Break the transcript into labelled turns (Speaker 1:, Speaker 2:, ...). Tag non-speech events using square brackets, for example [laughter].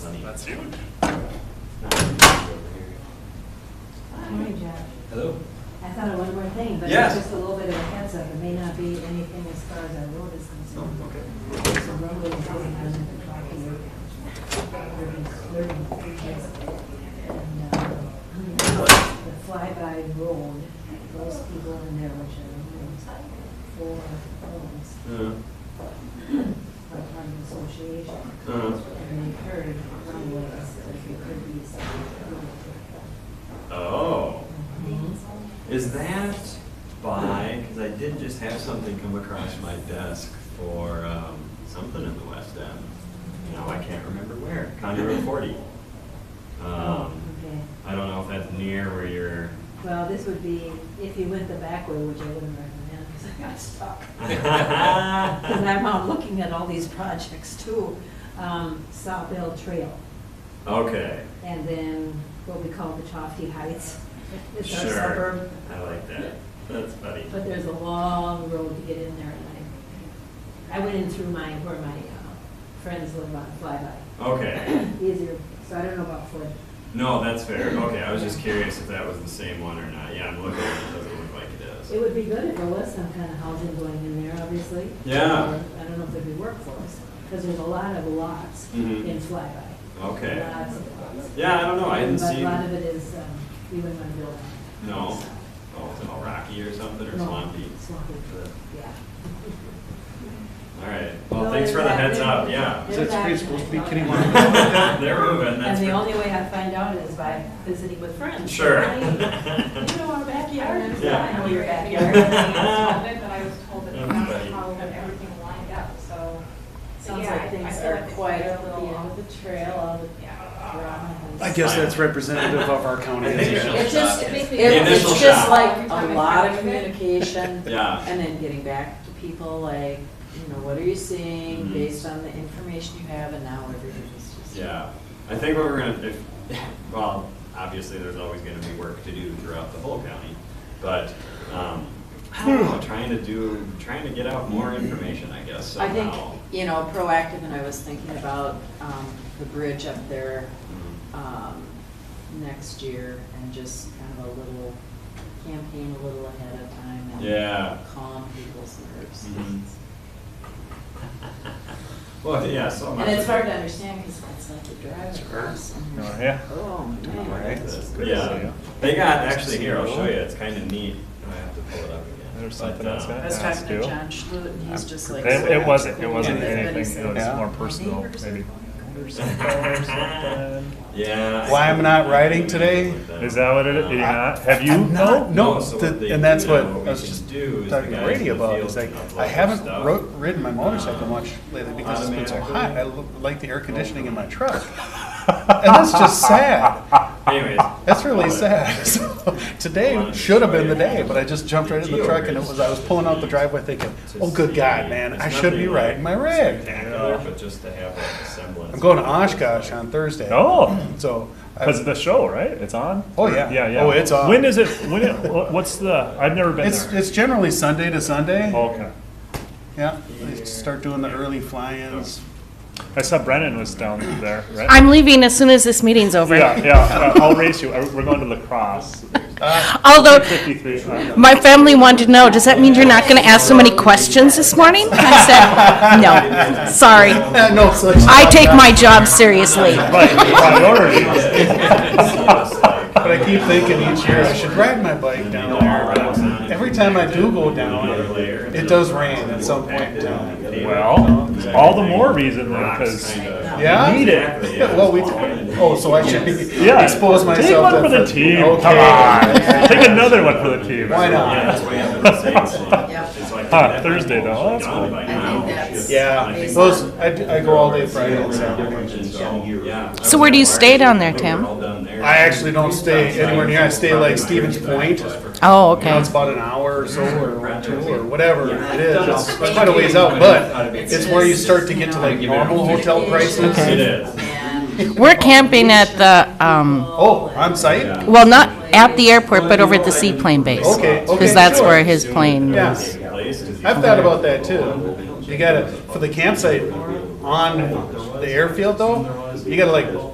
Speaker 1: That's you.
Speaker 2: Hi, Jeff.
Speaker 1: Hello.
Speaker 2: I thought of one more thing, but
Speaker 1: Yes.
Speaker 2: it's just a little bit of a heads up. It may not be anything as far as our road is
Speaker 1: Oh,
Speaker 2: concerned.
Speaker 1: okay.
Speaker 2: There's a roadway that's going under the block of your house. And, uh, The flyby road, those people in there, which are almost four homes,
Speaker 1: Uh,
Speaker 2: are part of the association.
Speaker 1: Uh-huh.
Speaker 2: And they heard one was, like, it could be something.
Speaker 1: Oh, is that by, because I did just have something come across my desk for um, something in the West End. Now I can't remember where, County Road 40.
Speaker 2: Oh,
Speaker 1: Um,
Speaker 2: Okay.
Speaker 1: I don't know if that's near where you're. [laughs]
Speaker 2: Well, this would be if you went the back way, which I wouldn't recommend, because I got stuck. Because I'm out looking at all these projects too. Um, South Hill Trail,
Speaker 1: Okay,
Speaker 2: and then what we call the Chofty Heights. It's our
Speaker 1: sure.
Speaker 2: suburb,
Speaker 1: I like that. That's funny.
Speaker 2: but there's a long road to get in there, and I, I went in through my, where my uh, friends live on Flyby.
Speaker 1: Okay,
Speaker 2: Easier, so I don't know about Ford.
Speaker 1: no, that's fair. Okay, I was just curious if that was the same one or not. Yeah, I'm looking, it doesn't look like it is.
Speaker 2: It would be good if there was some kind of housing going in there, obviously.
Speaker 1: Yeah.
Speaker 2: Or, I don't know if there'd be workforce, because there's a lot of lots
Speaker 1: Mhm.
Speaker 2: in Flyby.
Speaker 1: Okay.
Speaker 2: Lots of lots.
Speaker 1: Yeah, I don't know, I hadn't
Speaker 2: But
Speaker 1: seen,
Speaker 2: a lot
Speaker 1: no,
Speaker 2: of it is, um, you wouldn't want to build on.
Speaker 1: oh, it's all rocky or something, or
Speaker 2: No,
Speaker 1: swampy.
Speaker 2: Swampy,
Speaker 1: All
Speaker 2: yeah.
Speaker 1: right, well,
Speaker 2: No,
Speaker 1: thanks for the
Speaker 2: they're
Speaker 1: heads
Speaker 2: back.
Speaker 1: up, yeah. [laughs]
Speaker 2: They're-
Speaker 3: Is that street supposed to be kidding one?
Speaker 1: They're moving, that's.
Speaker 2: And the
Speaker 1: for-
Speaker 2: only way I find out is by visiting with friends.
Speaker 1: Sure. [laughs]
Speaker 2: Hey, You know our backyard,
Speaker 4: And then
Speaker 1: Yeah.
Speaker 2: I know your [laughs]
Speaker 1: [laughs]
Speaker 4: backyard.
Speaker 2: backyard.
Speaker 4: But I was told that that's
Speaker 1: Everybody.
Speaker 4: how everything lined up, so.
Speaker 2: Sounds
Speaker 4: Yeah, I- I
Speaker 2: like things
Speaker 4: feel
Speaker 2: are
Speaker 4: like it's
Speaker 2: quiet
Speaker 4: a
Speaker 2: at the
Speaker 4: little
Speaker 2: end
Speaker 4: off.
Speaker 2: of the trail, all the
Speaker 4: Yeah.
Speaker 2: drama. has-
Speaker 3: I guess that's representative of our
Speaker 1: [laughs]
Speaker 3: county.
Speaker 1: I think
Speaker 3: isn't it?
Speaker 1: so.
Speaker 5: It just, it-
Speaker 1: The
Speaker 5: it's
Speaker 1: initial
Speaker 5: just
Speaker 1: shock.
Speaker 5: like a lot of communication.
Speaker 1: [laughs] Yeah.
Speaker 5: And then getting back to people like, you know, what are you seeing
Speaker 1: Mhm.
Speaker 5: based on the information you have and now everything's just.
Speaker 1: Yeah, I think what we're gonna, if, [laughs] well, obviously, there's always gonna be work to do throughout the whole county, but, um, I don't know, trying to do, trying to get out more information, I guess,
Speaker 5: I think,
Speaker 1: somehow.
Speaker 5: you know, proactive and I was thinking about, um, the bridge up there,
Speaker 1: Mm.
Speaker 5: um, next year and just kind of a little campaign a little ahead of time and. [laughs]
Speaker 1: Yeah.
Speaker 5: Calm people's nerves.
Speaker 1: Mhm. Well, yeah, so much.
Speaker 5: And it's
Speaker 1: of
Speaker 5: hard
Speaker 1: it-
Speaker 5: to understand because it's like you drive across. and
Speaker 3: Oh,
Speaker 5: there's-
Speaker 3: yeah.
Speaker 5: Oh,
Speaker 3: Right.
Speaker 5: man.
Speaker 3: That's good to see
Speaker 1: Yeah,
Speaker 3: you.
Speaker 1: they got, actually, here, I'll show you, it's kind of neat, I have to pull it up again.
Speaker 6: There's
Speaker 1: But,
Speaker 6: something else
Speaker 1: uh, [laughs]
Speaker 6: that-
Speaker 5: I was
Speaker 6: Yeah, that's
Speaker 5: talking to
Speaker 6: cool.
Speaker 5: John Schlute and he's just like.
Speaker 6: It,
Speaker 5: so
Speaker 6: it wasn't, it
Speaker 5: cool.
Speaker 6: wasn't
Speaker 5: Yeah.
Speaker 6: anything, it was
Speaker 3: Yeah.
Speaker 6: more personal, maybe.
Speaker 1: Yeah.
Speaker 3: Why I'm not riding today?
Speaker 6: Is that what it is? You're not? Have you?
Speaker 3: I'm not- Oh, No,
Speaker 1: so
Speaker 3: the-
Speaker 1: what they
Speaker 3: and that's
Speaker 1: do
Speaker 3: what
Speaker 1: now,
Speaker 3: I
Speaker 1: we
Speaker 3: was
Speaker 1: can
Speaker 3: just
Speaker 1: do is the
Speaker 3: talking to
Speaker 1: guys
Speaker 3: Brady
Speaker 1: in the
Speaker 3: about,
Speaker 1: field
Speaker 3: is like,
Speaker 1: can upload
Speaker 3: I haven't
Speaker 1: stuff.
Speaker 3: ro- ridden my motorcycle much lately because it's been so
Speaker 1: Automatically. Oh,
Speaker 3: hot, I lo- like the air conditioning in my truck. And that's just sad,
Speaker 1: Anyways.
Speaker 3: that's really
Speaker 1: but-
Speaker 3: sad. [laughs] So, Today should have been the day, but I just jumped right in the truck and it was, I was pulling out the driveway thinking,
Speaker 1: to
Speaker 3: oh, good
Speaker 1: see-
Speaker 3: God, man,
Speaker 1: it's
Speaker 3: I should be
Speaker 1: nothing like
Speaker 3: riding my rig. you
Speaker 1: Spectacular,
Speaker 3: know?
Speaker 1: but just to have like a semblance.
Speaker 3: I'm going to
Speaker 1: of what it looks
Speaker 3: Oshkosh
Speaker 1: like.
Speaker 3: on Thursday.
Speaker 6: Oh,
Speaker 3: So. uh, I-
Speaker 6: because of the show, right? It's on?
Speaker 3: Oh, yeah.
Speaker 6: Yeah, yeah.
Speaker 3: Oh, it's on.
Speaker 6: When is it, when it, wha- what's the, I've never been
Speaker 3: It's,
Speaker 6: there. Oh.
Speaker 3: it's generally Sunday to Sunday.
Speaker 6: Okay.
Speaker 3: Yeah, they start doing the early fly-ins.
Speaker 6: I saw Brennan was down there, right?
Speaker 7: I'm leaving as soon as this meeting's over.
Speaker 6: Yeah, yeah, yeah, I'll race you. I- We're going to lacrosse. uh,
Speaker 7: Although,
Speaker 6: 53.
Speaker 7: my family wanted to know, does that mean you're not going to ask so many questions this morning? I said, no,
Speaker 3: [laughs]
Speaker 7: sorry.
Speaker 3: No, so
Speaker 7: I
Speaker 3: [laughs]
Speaker 7: take my job seriously.
Speaker 6: Right, [laughs] priorities.
Speaker 3: But I keep thinking each year, I should ride my bike down there. but Every time I do go down, it does rain at some point in time.
Speaker 6: Well, all the more reason then, because
Speaker 3: Yeah?
Speaker 6: need it.
Speaker 3: [laughs] Well, we, oh, so I should be-
Speaker 6: Yeah.
Speaker 3: expose myself.
Speaker 6: Take one
Speaker 3: to-
Speaker 6: for the team.
Speaker 3: Okay. [laughs]
Speaker 6: Come on. Take another one for the team.
Speaker 3: Why not?
Speaker 1: Yeah, that's why I have the same
Speaker 6: [laughs]
Speaker 1: one.
Speaker 5: Yeah.
Speaker 1: It's like-
Speaker 6: Huh, Thursday though, that's
Speaker 1: Done
Speaker 6: cool.
Speaker 1: by
Speaker 5: I
Speaker 1: now.
Speaker 5: think that's.
Speaker 3: Yeah,
Speaker 5: amazing.
Speaker 3: those, I, d- I go all day Friday and Saturday.
Speaker 1: So, yeah.
Speaker 7: So where do you stay down there, Tim?
Speaker 3: I actually don't stay anywhere near, I stay like Stevens Point.
Speaker 7: Oh,
Speaker 3: You know,
Speaker 7: okay.
Speaker 3: it's about an hour or so, or two, or whatever it is. It's quite a ways out, but it's where you start to get to like normal hotel prices.
Speaker 1: It is.
Speaker 5: And-
Speaker 7: We're camping at the, um,
Speaker 3: Oh, on site?
Speaker 7: well, not at the airport, but over at the seaplane base.
Speaker 3: Okay, okay,
Speaker 7: Because that's
Speaker 3: sure.
Speaker 7: where his plane
Speaker 3: Yeah.
Speaker 7: is.
Speaker 3: I've thought about that too. You gotta, for the campsite on the airfield though, you gotta like